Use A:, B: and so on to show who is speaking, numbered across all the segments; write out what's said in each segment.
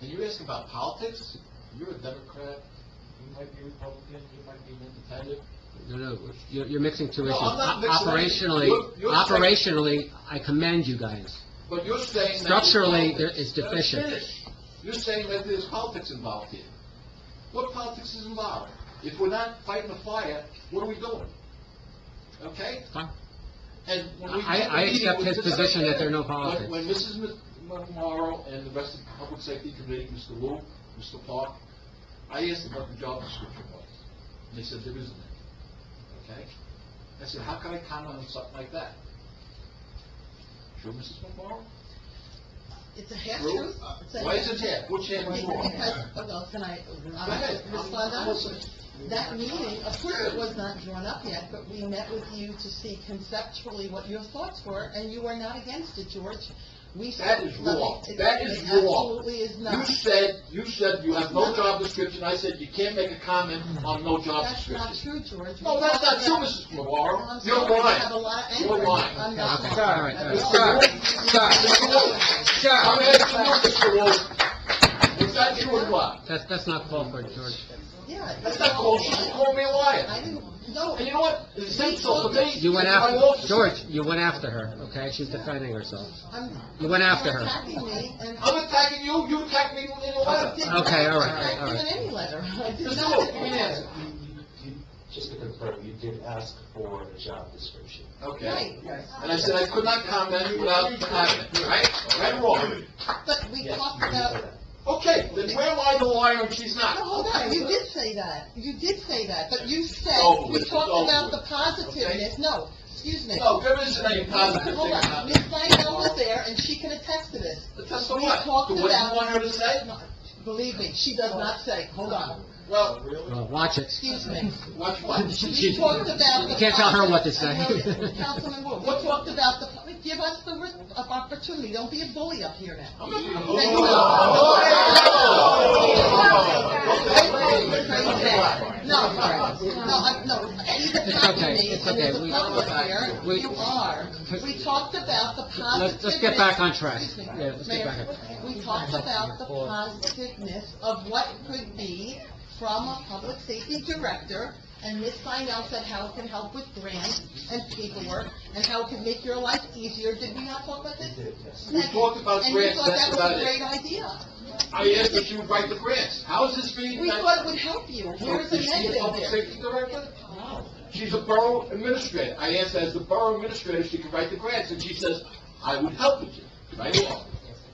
A: And you ask about politics, you're a Democrat, you might be Republican, you might be an independent.
B: No, no, you're, you're mixing two
A: No,
B: issues.
A: I'm not
B: O-
A: mixing anything. You're-
B: Operationally,
A: you're saying-
B: operationally, I commend you guys.
A: But you're saying that... there's
B: Structurally,
A: politics.
B: there is
A: Let us
B: deficient.
A: finish. You're saying that there's politics involved here. What politics is involved? If we're not fighting a fire, what are we doing? Okay?
B: Fine.
A: And when we...
B: I-
A: had the
B: I
A: meeting
B: accept
A: with
B: his
A: this-
B: position that there are no politics.
A: When when Mrs. Ma- Ma- Morrow and the rest of the Public Safety Committee, Mr. Wu, Mr. Park, I asked them what the job description was, and they said there isn't any. Okay? I said, how can I comment on something like that? Sure, Mrs. Morrow?
C: It's a half
A: True.
C: truth. It's a
A: Why
C: half-
A: is it half? Which half is wrong?
C: Because, oh, well, can I,
A: Go ahead.
C: I'll respond
A: I'm
C: honestly.
A: listening.
C: That meeting, of course, it was not drawn up yet, but we met with you to see conceptually what your thoughts were, and you were not against it, George. We
A: That
C: said
A: is
C: nothing.
A: wrong.
C: It-
A: That is
C: it
A: wrong.
C: Absolutely is
A: You
C: not.
A: said, you said you have no job description. I said you can't make a comment on no job
C: That's not
A: description.
C: true, George.
A: No,
C: We
A: that's not
C: talked
A: true,
C: about-
A: Mrs.
C: Well, I'm
A: Navarro. You're
C: sorry, I have a
A: lying.
C: lot of
A: You're
C: anger.
A: lying.
B: Yeah,
C: I'm not
B: okay.
C: sorry.
B: All right, all
C: That's
B: right.
C: wrong.
B: Stop, stop,
A: I'm
B: stop.
A: asking you, Mr. Wolf, is that true or what?
B: That's, that's not called for, George.
C: Yeah.
A: That's not called, you just called me a
C: I
A: liar.
C: didn't, no.
A: And you know what? It's an insult to me.
B: You went
A: It's my
B: after,
A: office.
B: George, you went after her, okay? She's defending herself.
C: I'm-
B: You went after her.
C: You're attacking me, and
A: I'm attacking you, you attack me in a
C: I
A: letter.
C: did not
B: Okay, all right,
C: attack
B: all
C: you
B: right.
C: in any letter. I did
A: Mr.
C: not.
A: Wolf, give me an answer.
D: Just to confirm, you did ask for a job description.
A: Okay.
C: Right,
A: And I said I could not comment without comment, right? Right or wrong?
C: but we
D: Yes,
C: talked
D: you did say
C: about,
D: that.
A: Okay, then where am I the liar and she's
C: no,
A: not?
C: hold on, you did say that, you did say that, but you said,
A: over Oh, with,
C: we
A: it's
C: talked
A: over
C: about
A: with,
C: the positiveness, no, excuse me.
A: No, there isn't any positive thing
C: Hold on,
A: about
C: Ms.
A: it.
C: Langell was there, and she can attest to this.
A: But that's the
C: We
A: what?
C: talked
A: The what you
C: about-
A: want her to say?
C: No, Believe me, she does not say, hold on,
A: Well,
B: Well, watch it.
C: excuse me.
A: watch what?
C: We talked about the...
B: You can't tell her what to say.
C: Another- Councilman Wu, we talked about the, give us the ri- of opportunity, don't be a bully up here now.
A: I'm not gonna-
C: Thank you. No, sorry. no, I'm- no, he's attacking me,
B: It's okay, it's
C: and
B: okay.
C: there's a
B: We-
C: public here,
B: we-
C: you are. We talked about the positiveness.
B: Let's- let's get back on track.
C: Excuse me,
B: Yeah, let's get
C: Mayor.
B: back
C: We talked about the positiveness of what could be from a public safety director, and Ms. Seinell said how it can help with grants and paperwork, and how it can make your life easier, did we not talk about this?
D: You did, yes.
A: We talked about
C: And
A: grants, that's about
C: you thought that was a
A: it.
C: great idea.
A: I asked if you would write the grants. How is this being?
C: We thought it would help you. Here's a
A: Is she a
C: negative
A: public
C: there.
A: safety director?
C: No.
A: She's a borough administrator. I asked as the borough administrator, she could write the grants, and she says, I would help with you, right along,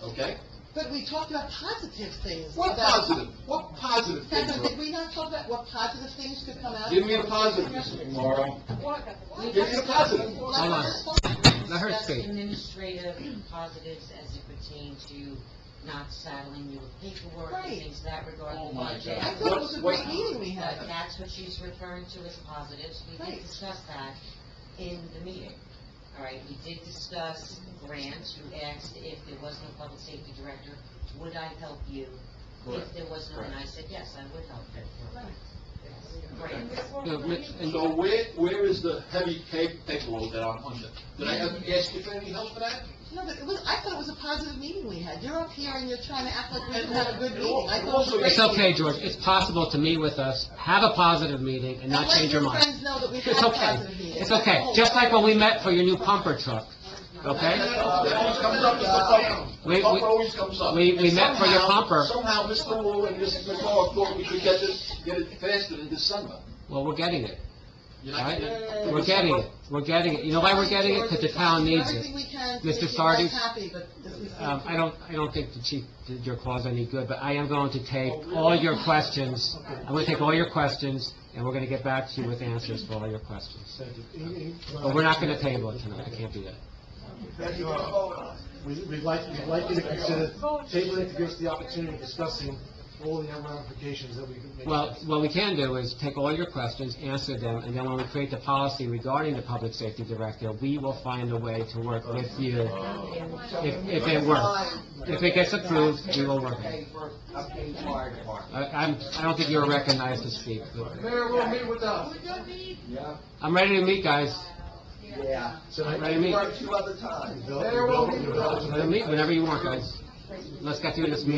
A: okay?
C: But we talked about positive things.
A: What
C: about-
A: positive, what positive things
C: Kevin,
A: are
C: did we not talk about what positive things could come out?
A: Give me a positive, Mr. Morrow.
C: We-
A: Give me a positive.
C: Let's
B: Hold on.
C: respond.
B: Let her speak.
E: Discuss administrative positives as it pertain to not saddling you with paperwork
C: Right.
E: and things of that regard.
A: Oh, my God.
C: I thought it was a great
A: What-
C: meeting we
E: But
C: had.
E: that's what she's referring to as positives. We
C: Right.
E: did discuss that in the meeting. All right, we did discuss grants. You asked if there was no public safety director, would I help you? If
A: Correct.
E: there was no, and I said, yes, I would help you. Grants.
B: No, Mitch, and-
A: So where, where is the heavy ca- paperload that I'm under? Did I ever ask you for any help for that?
C: No, but it was, I thought it was a positive meeting we had. You're up here and you're trying to act like we didn't have a good meeting. I thought it was a great
B: It's okay,
C: meeting.
B: George, it's possible to meet with us, have a positive meeting, and not
C: And let
B: change your mind.
C: friends know that we've
B: It's
C: had
B: okay,
C: positive meetings.
B: it's okay, just like when we met for your new pumper truck, okay?
A: That always comes up, Mr. Pumper.
B: We- we-
A: Pumper always comes up.
B: we- we
A: And
B: met for your
A: somehow-
B: pumper.
A: Somehow, Mr. Wu and Mrs. McCall thought we could get this, get it faster in December.
B: Well, we're getting it,
A: You're not
B: right?
A: getting it?
B: We're getting it, we're getting it, you know why we're getting it? Because the town needs it.
C: Everything we can
B: Mr.
C: to make you guys
B: Sardis?
C: happy, but this is-
B: Um, I don't, I don't think the chief did your clause any good, but I am going to take all your questions, I'm gonna take all your questions, and we're gonna get back to you with answers for all your questions. But we're not gonna table it tonight, I can't do that.
F: That you are. We- We'd like, we'd like you to consider tabling it to give us the opportunity of discussing all the ramifications that we could make.
B: Well, what we can do is take all your questions, answer them, and then when we create the policy regarding the public safety director, we will find a way to work with you,
C: Oh.
B: if, if it works. If it gets approved, we will work it. I, I'm, I don't think you're recognized to speak, but
A: Mayor will meet with us.
B: I'm ready to meet, guys.
G: Yeah.
F: So,
B: I'm
F: I-
B: ready to meet.
G: Two other times.
F: Develop- develop- develop-
B: Meet whenever you want, guys. Let's get through this meeting.